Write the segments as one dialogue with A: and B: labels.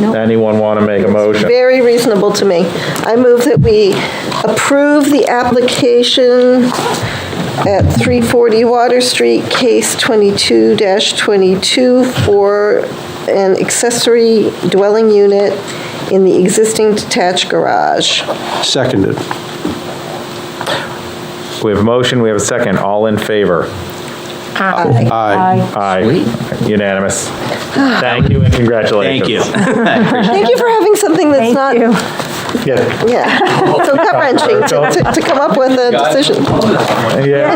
A: Anyone want to make a motion?
B: Very reasonable to me. I move that we approve the application at 340 Water Street, case 22-22, for an accessory dwelling unit in the existing detached garage.
C: Seconded.
A: We have a motion, we have a second. All in favor?
C: Aye.
A: Aye. Unanimous. Thank you and congratulations.
D: Thank you.
B: Thank you for having something that's not,
A: Yeah.
B: yeah, so gut-wrenching to- to to come up with a decision.
A: Yeah,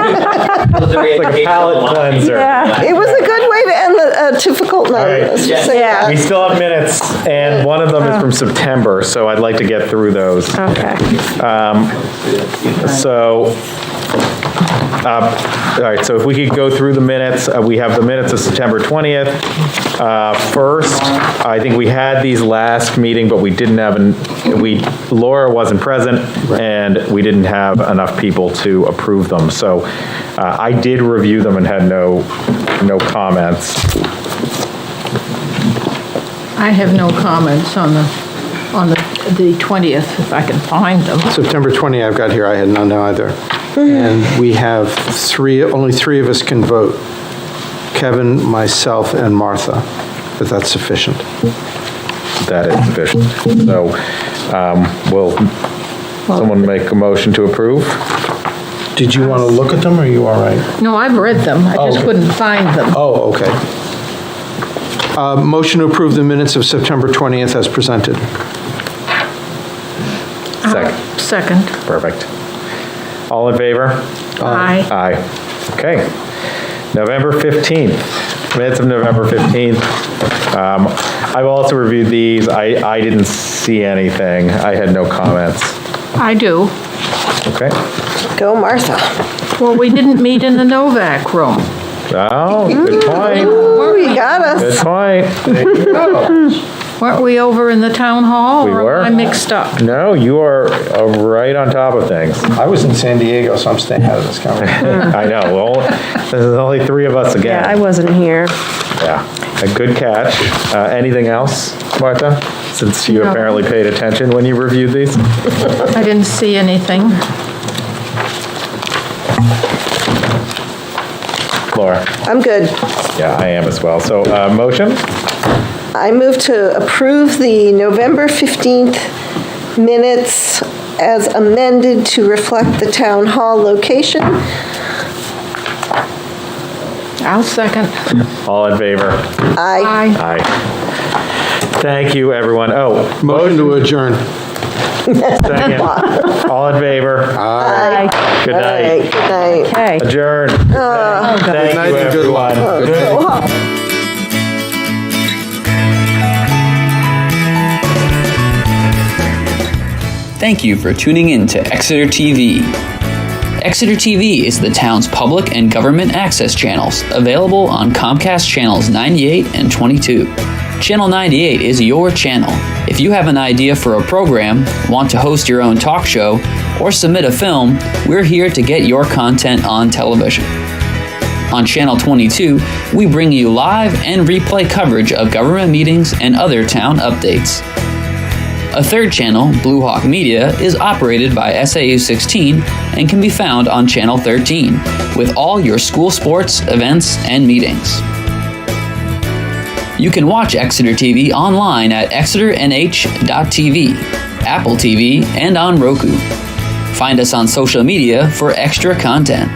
A: It's like a palate cleanser.
B: It was a good way to end the- a difficult night.
A: right.
B: let's just say
E: Yeah.
B: that.
A: We still have minutes, and one of them is from September, so I'd like to get through those.
E: Okay.
A: So, um, all right, so if we could go through the minutes, uh, we have the minutes of September 20th. Uh, First, I think we had these last meeting, but we didn't have, an- we, Laura wasn't present, and we didn't have enough people to approve them. So uh, I did review them and had no, no comments.
F: I have no comments on the, on the the 20th, if I can find them.
C: September 20, I've got here, I had none either. And we have three, only three of us can vote, Kevin, myself, and Martha, but that's sufficient.
A: That is sufficient. So um, will someone make a motion to approve?
C: Did you want to look at them, or are you all right?
F: No, I've read them, I just couldn't find them.
C: Oh, okay. Uh, Motion to approve the minutes of September 20th as presented.
A: Second.
F: Second.
A: Perfect. All in favor?
F: Aye.
A: Aye. Okay. November 15th, minutes of November 15th. Um, I've also reviewed these. I, I didn't see anything. I had no comments.
F: I do.
A: Okay.
B: Go Martha.
F: Well, we didn't meet in the Novak room.
A: Oh, good point.
B: Ooh, you got us.
A: Good point.
F: Weren't we over in the town hall?
A: We were.
F: Or am I mixed up?
A: No, you are uh, right on top of things.
C: I was in San Diego, so I'm staying out of this conversation.
A: I know. Well, there's only three of us
E: Yeah, I
A: again.
E: wasn't here.
A: Yeah. A good catch. Uh, Anything else, Martha? Since you
F: No.
A: apparently paid attention when you reviewed these?
F: I didn't see anything.
A: Laura?
B: I'm good.
A: Yeah, I am as well. So, uh, motion?
B: I move to approve the November 15th minutes as amended to reflect the town hall location.
F: I'll second.
A: All in favor?
B: I,
F: Aye.
A: Aye. Thank you, everyone. Oh,
C: Motion to adjourn.
A: second. All in favor?
E: Aye.
A: Good
B: all
A: night.
B: right, good night.
E: Okay.
A: Adjourn. Thank
C: night
A: you,
C: and good luck.
A: everyone. Good night.
G: Thank you for tuning in to Exeter TV. Exeter TV is the town's public and government access channels, available on Comcast channels 98 and 22. Channel 98 is your channel. If you have an idea for a program, want to host your own talk show, or submit a film, we're here to get your content on television. On Channel 22, we bring you live and replay coverage of government meetings and other town updates. A third channel, Blue Hawk Media, is operated by SAU 16 and can be found on Channel 13 with all your school sports, events, and meetings. You can watch Exeter TV online at exeternh.tv, Apple TV, and on Roku. Find us on social media for extra content.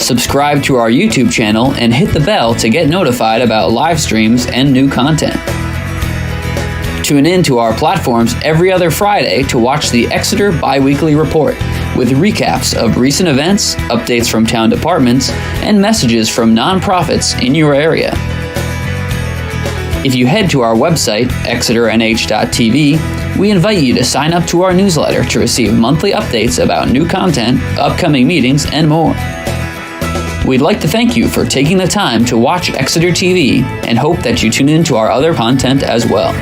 G: Subscribe to our YouTube channel and hit the bell to get notified about live streams and new content. Tune in to our platforms every other Friday to watch the Exeter Biweekly Report with recaps of recent events, updates from town departments, and messages from nonprofits in your area. If you head to our website, exeternh.tv, we invite you to sign up to our newsletter to receive monthly updates about new content, upcoming meetings, and more. We'd like to thank you for taking the time to watch Exeter TV and hope that you tune in to our other content as well.